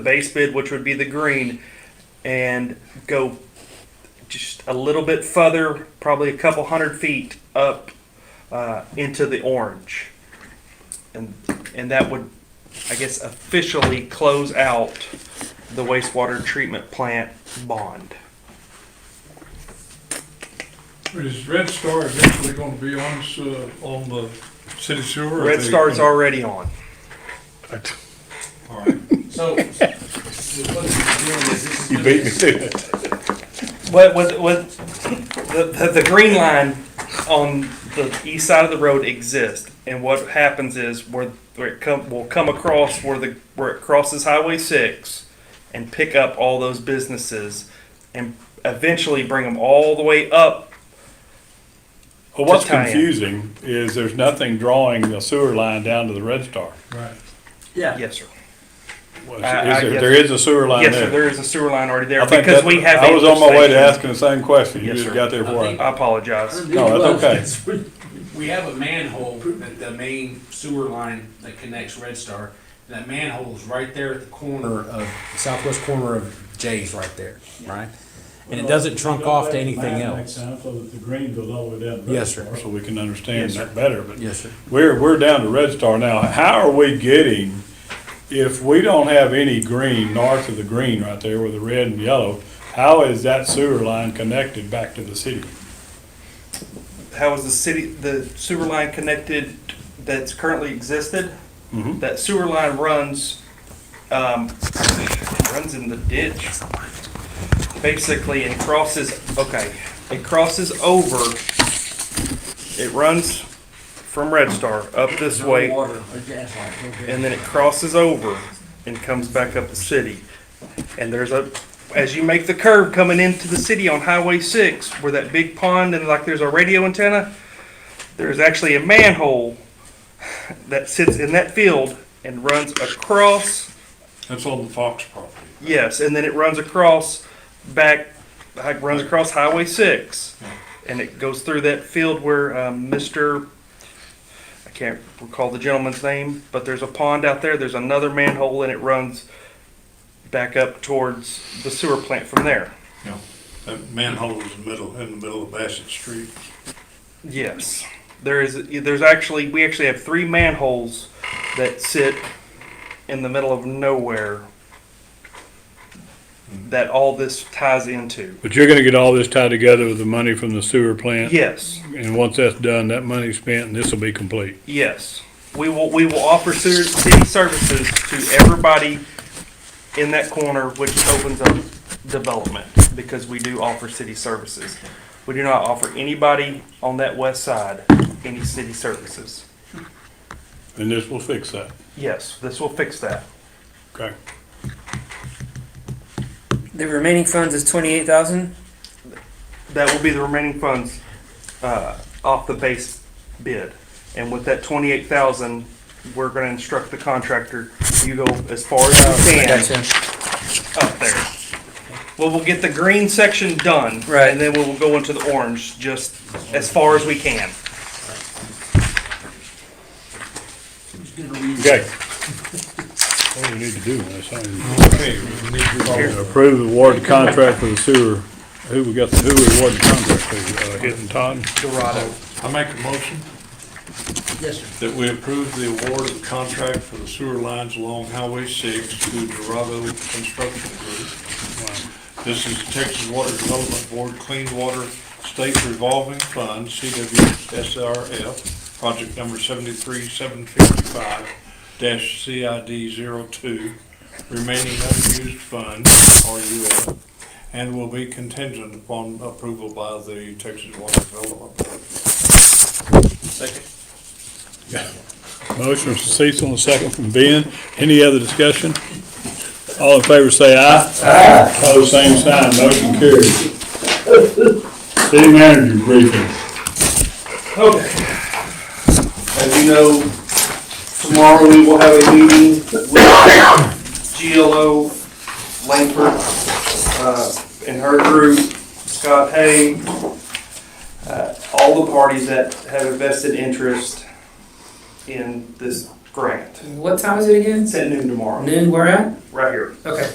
base bid, which would be the green, and go just a little bit further, probably a couple hundred feet up uh, into the orange. And, and that would, I guess, officially close out the wastewater treatment plant bond. Is Red Star eventually gonna be on, s- uh, on the city sewer? or Red they- Star's already on. All right. So, what you're doing is this is. You beat me to it. What, what, what, the, the, the green line on the east side of the road exists, and what happens is where, where it come, will come across where the, where it crosses Highway six and pick up all those businesses and eventually bring them all the way up. Well, what's Just tie in. confusing is there's nothing drawing the sewer line down to the Red Star. Right. Yeah, Yes, sir. Was- is I- I there- guess- There is a sewer line Yes, sir, there. there is a sewer line already there I think because that- we have. I was on my way to interstation. asking the same question. You Yes, just sir. got there before I I. think- I apologize. No, that's okay. We have a manhole, that the main sewer line that connects Red Star, that manhole is right there at the corner of, southwest corner of Jay's right there, right? And it doesn't trunk off to anything else. So that the green goes all the way down. Yes, sir. So we can understand that better, but. Yes, sir. We're, we're down to Red Star now. How are we getting, if we don't have any green north of the green right there with the red and yellow, how is that sewer line connected back to the city? How is the city, the sewer line connected that's currently existed? Mhm. That sewer line runs, um, runs in the ditch, basically, and crosses, okay, it crosses over. It runs from Red Star up this way, and then it crosses over and comes back up the city. And there's a, as you make the curve coming into the city on Highway six, where that big pond and like there's a radio antenna, there's actually a manhole that sits in that field and runs across, That's on the Fox property. yes, and then it runs across back, like, runs across Highway six. And it goes through that field where, um, Mr., I can't recall the gentleman's name, but there's a pond out there, there's another manhole and it runs back up towards the sewer plant from there. Yeah. That manhole is in the middle, in the middle of Bassett Street. Yes, there is. There's actually we actually have three manholes that sit in the middle of nowhere that all this ties into. But you're gonna get all this tied together with the money from the sewer plant? Yes, And once that's done, that money's spent and this will be complete. yes, we will. We will offer ser- city services to everybody in that corner, which opens up development because we do offer city services. We do not offer anybody on that west side any city services. And this will fix that. Yes, this will fix that. Okay. The remaining funds is twenty-eight thousand. that will be the remaining funds uh, off the base bid. And with that twenty-eight thousand, we're gonna instruct the contractor, you go as far as you can up there. Well, we'll get the green section done. Right. And then we'll go into the orange, just as far as we can. Okay. What do we need to do on this thing? Approve the award contract for the sewer. Who we got, who we awarded the contract to, uh, Hitton Todd? Dorado. I make a motion Yes, sir. that we approve the award of the contract for the sewer lines along Highway six to Dorado Construction Group. This is the Texas Water Development Board Clean Water State Revolving Fund, CWSRF, project number seventy-three, seven fifty-five CID 2 remaining unused fund, RUF, and will be contingent upon approval by the Texas Water Development Board. Motion from Cecil and a second from Ben. Any other discussion? All in favor say aye. Aye. Pose same sign, motion carries. City manager briefing. As you know, tomorrow we will have a meeting with GLO Langford, uh, and her group, Scott Hay, uh, all the parties that have a vested interest in this grant. What time is it again? It's at noon tomorrow, Noon, where at? right here. Okay.